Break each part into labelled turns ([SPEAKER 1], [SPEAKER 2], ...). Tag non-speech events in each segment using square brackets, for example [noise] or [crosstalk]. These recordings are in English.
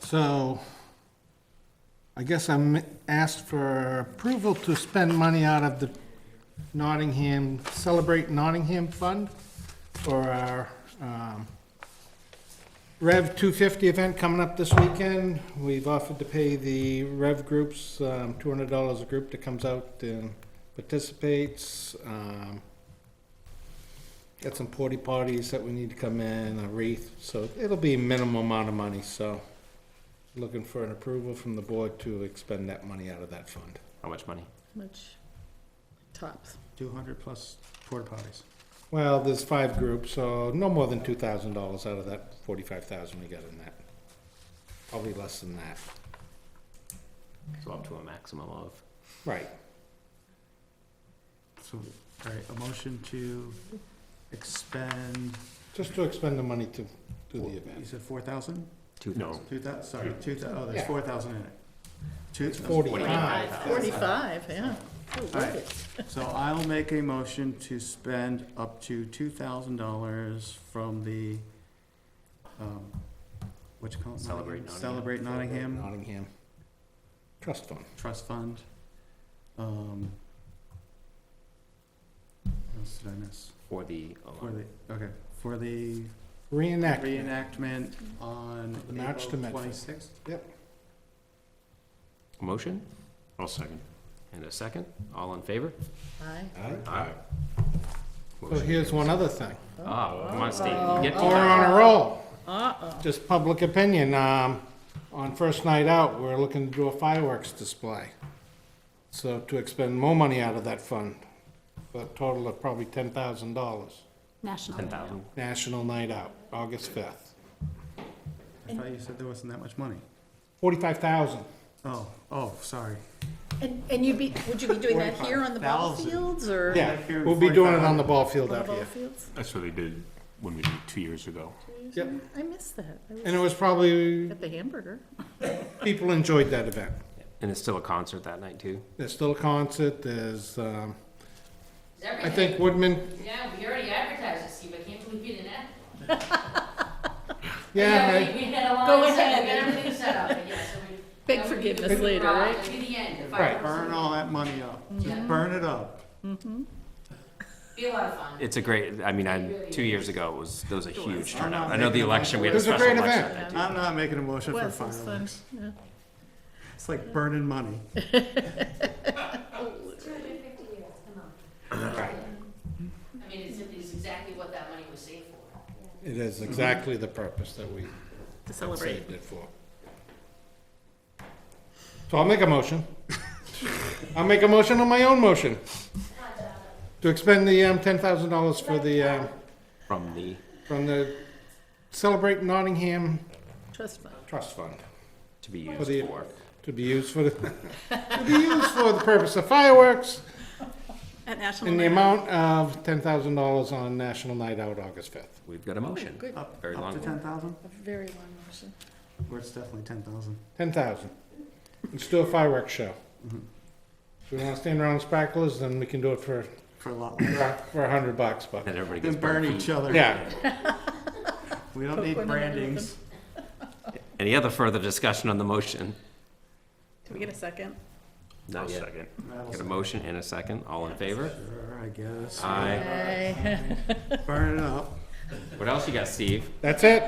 [SPEAKER 1] So I guess I'm asked for approval to spend money out of the Nottingham, Celebrate Nottingham Fund for our um, Rev 250 event coming up this weekend. We've offered to pay the Rev groups um, $200 a group that comes out and participates. Um, Got some porta potties that we need to come in, a wreath, so it'll be a minimum amount of money, so looking for an approval from the board to expend that money out of that fund.
[SPEAKER 2] How much money?
[SPEAKER 3] Much tops.
[SPEAKER 4] Two hundred plus porta potties.
[SPEAKER 1] Well, there's five groups, so no more than two thousand dollars out of that forty-five thousand we got in that. Probably less than that,
[SPEAKER 2] So up to a maximum of.
[SPEAKER 1] right.
[SPEAKER 4] So, all right, a motion to expend,
[SPEAKER 1] Just to expend the money to do the
[SPEAKER 4] you
[SPEAKER 1] event.
[SPEAKER 4] said four thousand?
[SPEAKER 2] Two thousand.
[SPEAKER 4] Two thou, sorry, two thou, oh, there's
[SPEAKER 1] Yeah.
[SPEAKER 4] four thousand in it. Two,
[SPEAKER 1] Forty-five.
[SPEAKER 3] Forty-five, yeah. Ooh,
[SPEAKER 4] All right.
[SPEAKER 3] look it.
[SPEAKER 4] so I'll make a motion to spend up to two thousand dollars from the, um, what you call it?
[SPEAKER 2] Celebrate Nottingham.
[SPEAKER 4] Celebrate Nottingham
[SPEAKER 1] Nottingham. Trust fund.
[SPEAKER 4] Trust Fund. Um, What else did I miss?
[SPEAKER 2] For the.
[SPEAKER 4] For the, okay, for the
[SPEAKER 1] Reenactment.
[SPEAKER 4] reenactment on
[SPEAKER 1] The match to
[SPEAKER 4] April
[SPEAKER 1] Medford.
[SPEAKER 4] twenty-sixth.
[SPEAKER 2] Motion? I'll second. And a second? All in favor?
[SPEAKER 3] Aye.
[SPEAKER 2] Aye.
[SPEAKER 1] So here's one other thing.
[SPEAKER 2] Ah, come on, Steve, you get
[SPEAKER 1] We're
[SPEAKER 2] to.
[SPEAKER 1] on a roll.
[SPEAKER 3] Uh-oh.
[SPEAKER 1] Just public opinion, um, on first night out, we're looking to do a fireworks display. So to expend more money out of that fund, for a total of probably ten thousand dollars.
[SPEAKER 5] National.
[SPEAKER 2] Ten thousand.
[SPEAKER 1] National Night Out, August fifth.
[SPEAKER 4] I thought you said there wasn't that much money.
[SPEAKER 1] Forty-five thousand,
[SPEAKER 4] Oh, oh, sorry.
[SPEAKER 3] And, and you'd be, would you be doing that here on the ball
[SPEAKER 4] 45,000.
[SPEAKER 3] fields or?
[SPEAKER 1] yeah,
[SPEAKER 4] Here in
[SPEAKER 1] we'll be doing it
[SPEAKER 4] 45.
[SPEAKER 1] on the ball field
[SPEAKER 3] On the
[SPEAKER 1] out
[SPEAKER 3] ball
[SPEAKER 1] here.
[SPEAKER 3] fields?
[SPEAKER 6] That's what they did when we did it two years ago.
[SPEAKER 1] Yep.
[SPEAKER 3] I missed that. I
[SPEAKER 1] And
[SPEAKER 3] was
[SPEAKER 1] it was probably,
[SPEAKER 3] at the hamburger.
[SPEAKER 1] people enjoyed that event.
[SPEAKER 2] And it's still a concert that night too?
[SPEAKER 1] There's still a concert, there's, um, I think Woodman,
[SPEAKER 7] Yeah, we already advertised it, Steve, I can't believe you didn't add.
[SPEAKER 1] yeah,
[SPEAKER 7] We we had a
[SPEAKER 3] Go
[SPEAKER 7] line set, we
[SPEAKER 3] ahead.
[SPEAKER 7] got everything set up, but yeah, so
[SPEAKER 3] [laughs]
[SPEAKER 7] we.
[SPEAKER 3] Beg
[SPEAKER 7] that would be
[SPEAKER 3] forgiveness
[SPEAKER 7] the big
[SPEAKER 3] later,
[SPEAKER 7] prize,
[SPEAKER 3] right?
[SPEAKER 7] that'd be the end, the
[SPEAKER 1] Right.
[SPEAKER 4] Burn all that money up.
[SPEAKER 3] Mm-hmm.
[SPEAKER 4] Just burn it up.
[SPEAKER 7] Be a lot of fun.
[SPEAKER 2] It's a great, I mean, I, two years ago, it was, there was a huge turnout. I know the election, we had
[SPEAKER 1] It
[SPEAKER 2] a
[SPEAKER 1] was a
[SPEAKER 2] special
[SPEAKER 1] great
[SPEAKER 2] election
[SPEAKER 1] event.
[SPEAKER 2] that
[SPEAKER 4] I'm not making a motion for
[SPEAKER 3] Was, it was fun,
[SPEAKER 4] fireworks.
[SPEAKER 3] yeah.
[SPEAKER 4] It's like burning money.
[SPEAKER 7] Two hundred and fifty years, come on. I mean, it's, it's exactly what that money was saved for.
[SPEAKER 1] it is exactly the purpose that we
[SPEAKER 3] To celebrate.
[SPEAKER 1] saved it for. So I'll make a
[SPEAKER 3] [laughs]
[SPEAKER 1] motion. I'll make a motion on my own motion. To expend the, um, ten thousand dollars for the, um,
[SPEAKER 2] From the,
[SPEAKER 1] from the Celebrate Nottingham
[SPEAKER 3] Trust fund.
[SPEAKER 1] Trust Fund.
[SPEAKER 2] to be
[SPEAKER 1] For the-
[SPEAKER 2] used for.
[SPEAKER 1] To be used for the, [laughs] to be used for the purpose of fireworks
[SPEAKER 3] At National.
[SPEAKER 1] in the
[SPEAKER 3] Night Out.
[SPEAKER 1] amount of ten thousand dollars on National Night Out, August fifth.
[SPEAKER 2] We've got a
[SPEAKER 1] Oh,
[SPEAKER 2] motion.
[SPEAKER 3] Good,
[SPEAKER 4] Up,
[SPEAKER 2] Very
[SPEAKER 4] up
[SPEAKER 2] long
[SPEAKER 4] to
[SPEAKER 2] one.
[SPEAKER 4] ten thousand?
[SPEAKER 3] a very long motion.
[SPEAKER 4] Or it's definitely ten thousand.
[SPEAKER 1] Ten thousand. Let's do a fireworks show.
[SPEAKER 3] Mm-hmm.
[SPEAKER 1] If we wanna stand around with sparklers, then we can do it for,
[SPEAKER 4] For a lot.
[SPEAKER 1] for a hundred bucks, but,
[SPEAKER 2] Then everybody gets
[SPEAKER 4] Then burn
[SPEAKER 2] burned.
[SPEAKER 4] each other.
[SPEAKER 1] yeah.
[SPEAKER 4] We don't need
[SPEAKER 3] Coconut and
[SPEAKER 4] brandings.
[SPEAKER 2] Any other further discussion on the motion?
[SPEAKER 3] Can we get a second?
[SPEAKER 2] Not yet.
[SPEAKER 6] Second.
[SPEAKER 4] That'll
[SPEAKER 2] Got a motion and a second, all in favor?
[SPEAKER 4] Sure, I guess.
[SPEAKER 2] Aye.
[SPEAKER 3] Aye.
[SPEAKER 4] Burn it up.
[SPEAKER 2] What else you got, Steve?
[SPEAKER 1] That's it.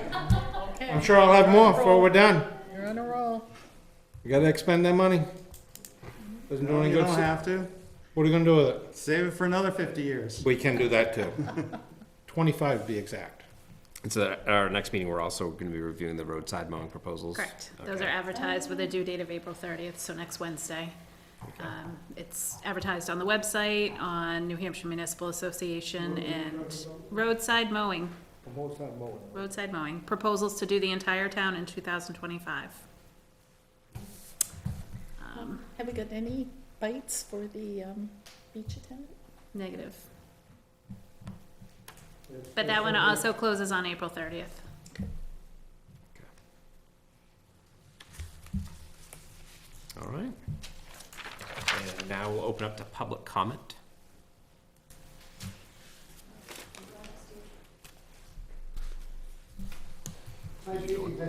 [SPEAKER 1] I'm sure I'll have more before we're done.
[SPEAKER 3] You're on a roll.
[SPEAKER 1] We gotta expend that money. Doesn't do any
[SPEAKER 4] You
[SPEAKER 1] good.
[SPEAKER 4] don't have to.
[SPEAKER 1] What are you gonna do with it?
[SPEAKER 4] Save it for another fifty years.
[SPEAKER 1] We can do that too. [laughs] Twenty-five to be exact.
[SPEAKER 2] And so at our next meeting, we're also gonna be reviewing the roadside mowing proposals.
[SPEAKER 5] Correct. Those are
[SPEAKER 2] Okay.
[SPEAKER 5] advertised with a due date of April thirtieth, so next Wednesday. Um, It's advertised on the website, on New Hampshire Municipal Association, and roadside mowing. Roadside mowing. Roadside mowing. Proposals to do the entire town in two thousand twenty-five. Um,
[SPEAKER 3] Um, Have we got any bites for the um, beach attendant?
[SPEAKER 5] Negative. But that one also closes on April thirtieth.
[SPEAKER 2] All right. And now we'll open up to public comment.